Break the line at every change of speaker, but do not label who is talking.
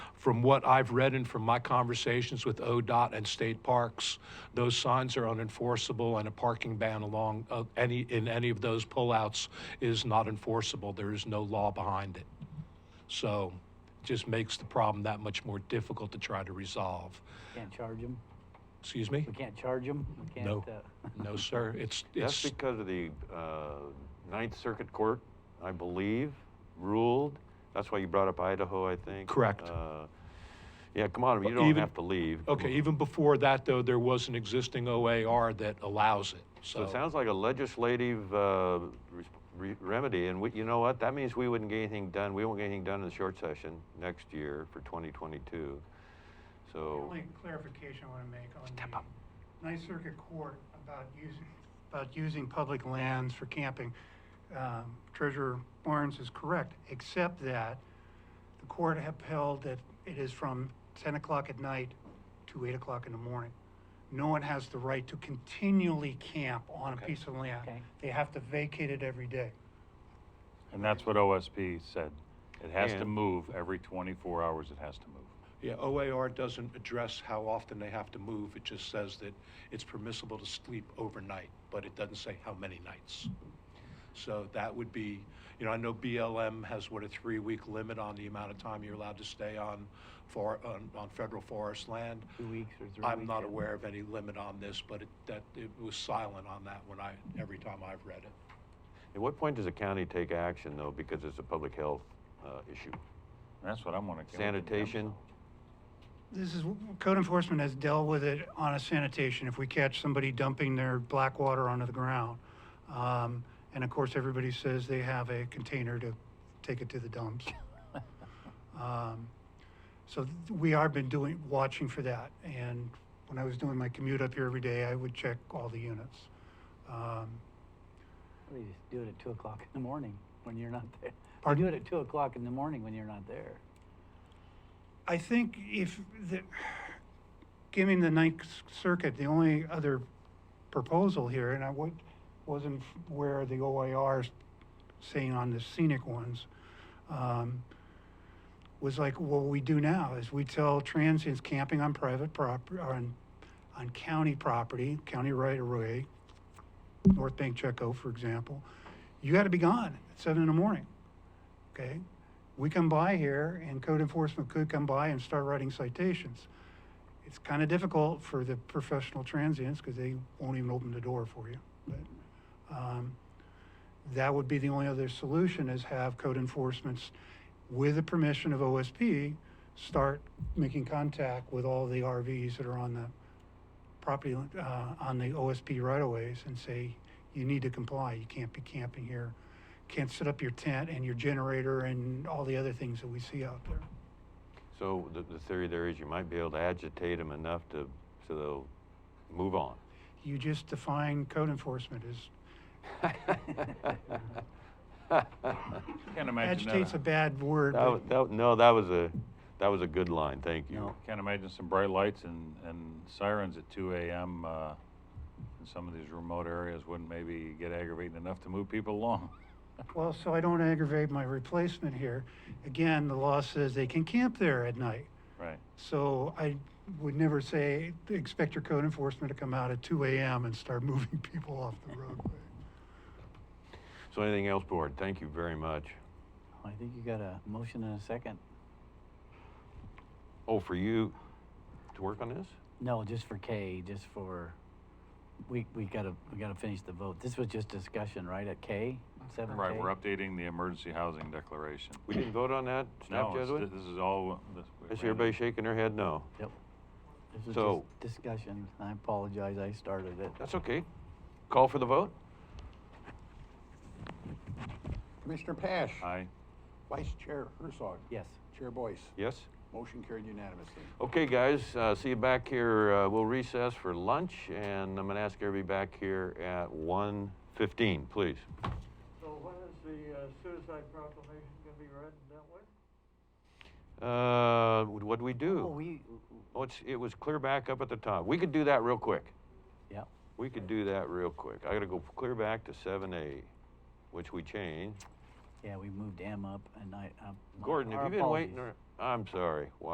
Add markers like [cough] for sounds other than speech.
From what I've read and from my conversations with ODOT and state parks, those signs are unenforceable and a parking ban along uh, any, in any of those pullouts is not enforceable. There is no law behind it. So it just makes the problem that much more difficult to try to resolve.
Can't charge them?
Excuse me?
We can't charge them? We
No.
can't, uh, [laughs]
No, sir. It's,
That's
it's,
because of the uh, Ninth Circuit Court, I believe, ruled. That's why you brought up Idaho, I think.
Correct.
Uh, Yeah, come on, you
But
don't
even-
have to leave.
okay, even before that though, there was an existing OAR that allows it,
So
so.
it sounds like a legislative uh, res- re- remedy, and we- you know what? That means we wouldn't get anything done, we won't get anything done in the short session next year for 2022.
The
So,
only clarification I want to make on the Ninth Circuit Court about using, about using public lands for camping. um, Treasurer Barnes is correct, except that the court upheld that it is from ten o'clock at night to eight o'clock in the morning. No one has the right to continually camp on a piece of land.
Okay.
They have to vacate it every day.
And that's what OSP said. It has to
And-
move every 24 hours, it has to move.
Yeah, OAR doesn't address how often they have to move. It just says that it's permissible to sleep overnight, but it doesn't say how many nights. So that would be, you know, I know BLM has what, a three-week limit on the amount of time you're allowed to stay on for, on, on federal forest land.
two weeks or three weeks?
I'm not
yeah.
aware of any limit on this, but it, that, it was silent on that when I, every time I've read it.
at what point does the county take action, though, because it's a public health uh, issue?
That's what I'm gonna.
Sanitation?
This is, code enforcement has dealt with it on a sanitation, if we catch somebody dumping their black water onto the ground. Um, and of course, everybody says they have a container to take it to the dumps. Um, So th- we are been doing, watching for that, and when I was doing my commute up here every day, I would check all the units. Um,
They just do it at two o'clock in the morning when you're not there. Or do
Pardon?
it at two o'clock in the morning when you're not there.
I think if the, giving the Ninth Circuit, the only other proposal here, and I would, wasn't where the OIR's saying on the scenic ones, um, was like what we do now is we tell transients camping on private property, on, on county property, county right of way, North Bank Checo, for example, you gotta be gone at seven in the morning, okay? we come by here and code enforcement could come by and start writing citations. It's kind of difficult for the professional transients because they won't even open the door for you. But, um, that would be the only other solution is have code enforcements with the permission of OSP, start making contact with all the RVs that are on the property, uh, on the OSP right of ways and say, you need to comply. You can't be camping here can't set up your tent and your generator and all the other things that we see out there.
So the, the theory there is you might be able to agitate them enough to, so they'll move on. [laughs]
You just define code enforcement as
Can't imagine
agitate's a
that.
bad word.
That,
but
wa- that, no, that was a, that was a good line, thank you.
No, Can't imagine some bright lights and, and sirens at 2 AM, uh, in some of these remote areas wouldn't maybe get aggravating enough to move people along. [laughs]
Well, so I don't aggravate my replacement here. Again, the law says they can camp there at night.
Right.
So I would never say, expect your code enforcement to come out at two AM and start [laughs] moving people off the roadway.
So anything else, board? Thank you very much.
I think you got a motion and a second.
Oh, for you to work on this?
No, just for K, just for, we, we gotta, we gotta finish the vote. This was just discussion, right, at K? Seven
Right,
K?
we're updating the emergency housing declaration.
We didn't vote on that, staff
No, it's-
Jesuit?
this is all. this-
I see
we- we had
everybody
a-
shaking their head no.
Yep. This was
So-
just discussion. I apologize, I started it.
That's okay. Call for the vote?
Commissioner Pash.
Aye.
Vice Chair Herzog.
Yes.
Chair Boyce.
Yes?
Motion carried unanimously.
Okay, guys, uh, see you back here. Uh, we'll recess for lunch, and I'm gonna ask everybody back here at 1:15, please.
So when is the uh, suicide proclamation gonna be read and dealt with?
Uh, what do we do?
Well, Oh, we,
Oh, it's, it was clear back up at the top. We could do that real quick.
yeah,
We could do that real quick. I gotta go clear back to seven A, which we changed.
yeah, we moved M up and I, I.
Gordon,
Oh, our
have you been waiting?
apologies.
or- I'm sorry.